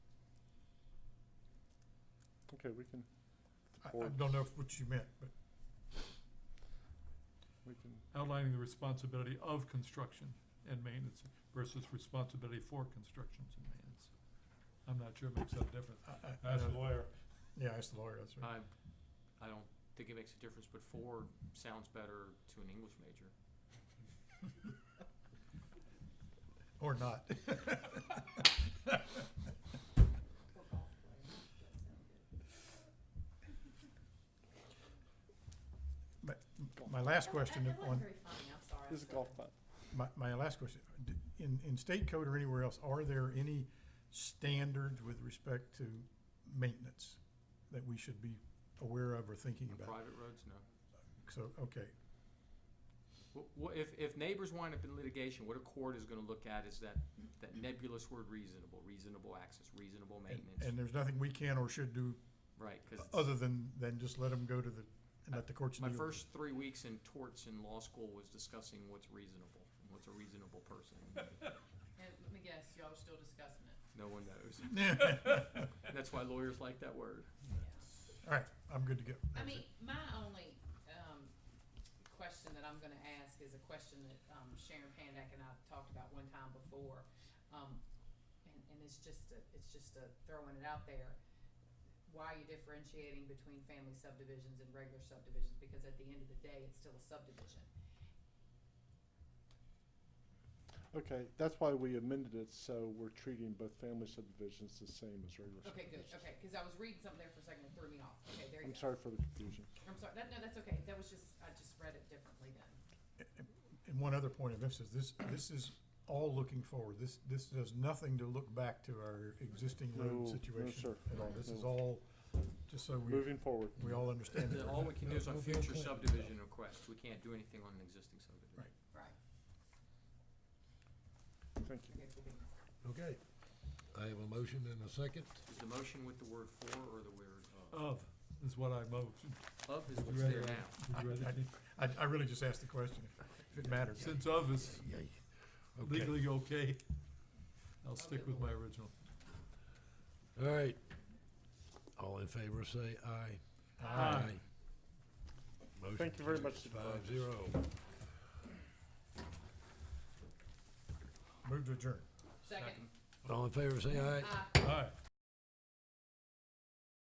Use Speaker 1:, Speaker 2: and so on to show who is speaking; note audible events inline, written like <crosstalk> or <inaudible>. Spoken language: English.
Speaker 1: Okay, we can,
Speaker 2: I, I
Speaker 1: Board.
Speaker 2: don't know if what you meant, but
Speaker 1: we can,
Speaker 2: outlining the responsibility of construction and maintenance versus responsibility for construction and maintenance. I'm not sure it makes that difference. Ask the lawyer. Uh. Yeah, ask the lawyer, that's right.
Speaker 3: I, I don't think it makes a difference, but four sounds better to an English major.
Speaker 2: Or not. But my last question
Speaker 4: That- that
Speaker 2: on,
Speaker 4: wasn't very funny, I'm sorry. I'm
Speaker 1: this is
Speaker 4: sorry.
Speaker 1: golf fun.
Speaker 2: my, my last question, d- in, in state code or anywhere else, are there any standards with respect to maintenance that we should be aware of or thinking
Speaker 3: On
Speaker 2: about?
Speaker 3: private roads, no.
Speaker 2: So, okay,
Speaker 3: Wh- wh- if, if neighbors wind up in litigation, what a court is gonna look at is that, that nebulous word reasonable, reasonable access, reasonable
Speaker 2: and,
Speaker 3: maintenance,
Speaker 2: and there's nothing we can or should do
Speaker 3: right? 'cause it's-
Speaker 2: other than, than just let them go to the, and let the courts deal
Speaker 3: my
Speaker 2: with it. <laughs>
Speaker 3: first three weeks in torts in law school was discussing what's reasonable, and what's a reasonable
Speaker 2: <laughs>
Speaker 3: person.
Speaker 4: And let me guess, y'all are still discussing it.
Speaker 3: No one knows.
Speaker 2: Yeah.
Speaker 3: That's why lawyers like that word.
Speaker 2: All right, I'm good to go.
Speaker 4: I
Speaker 2: That's it.
Speaker 4: mean, my only, um, question that I'm gonna ask is a question that, um, Sharon Pandak and I talked about one time before. Um, and, and it's just a, it's just a throwing it out there. Why are you differentiating between family subdivisions and regular subdivisions? Because at the end of the day, it's still a subdivision.
Speaker 1: Okay, that's why we amended it, so we're treating both family subdivisions the same as regular
Speaker 4: Okay, good,
Speaker 1: subdivisions.
Speaker 4: okay, cause I was reading something there for a second and it threw me off. Okay, there
Speaker 1: I'm
Speaker 4: you go.
Speaker 1: sorry for the confusion.
Speaker 4: I'm sorry, that, no, that's okay, that was just, I just read it differently then.
Speaker 2: And one other point of emphasis, this, this is all looking forward. This, this does nothing to look back to our existing
Speaker 1: No, no,
Speaker 2: road situation
Speaker 1: sir.
Speaker 2: at all. This is
Speaker 1: No.
Speaker 2: all, just so we,
Speaker 1: Moving forward.
Speaker 2: we all understand. that
Speaker 3: The- All we can do is on
Speaker 2: we'll be on
Speaker 3: future
Speaker 2: plan.
Speaker 3: subdivision requests, we can't do anything on an existing subdivision.
Speaker 2: Right.
Speaker 4: Right.
Speaker 1: Thank you.
Speaker 4: Okay, cool beans.
Speaker 5: Okay. I have a motion and a second.
Speaker 3: Is the motion with the word for or the word of?
Speaker 6: Of is what I motion.
Speaker 3: Of
Speaker 6: Would
Speaker 3: is
Speaker 6: you
Speaker 3: what's there
Speaker 6: rather-
Speaker 3: now.
Speaker 6: Would you rather
Speaker 2: I-
Speaker 6: take-
Speaker 2: I, I really just asked the question if- if it mattered.
Speaker 6: Since of is
Speaker 5: Okay.
Speaker 6: legally okay, I'll stick with my original.
Speaker 5: All right. All in favor, say aye. Motion
Speaker 1: Thank you very
Speaker 5: carries
Speaker 1: much,
Speaker 5: Five
Speaker 1: Supervisors.
Speaker 5: zero.
Speaker 2: Move to adjourn.
Speaker 4: Second.
Speaker 5: All in favor, say aye.
Speaker 4: Uh,
Speaker 6: Aye.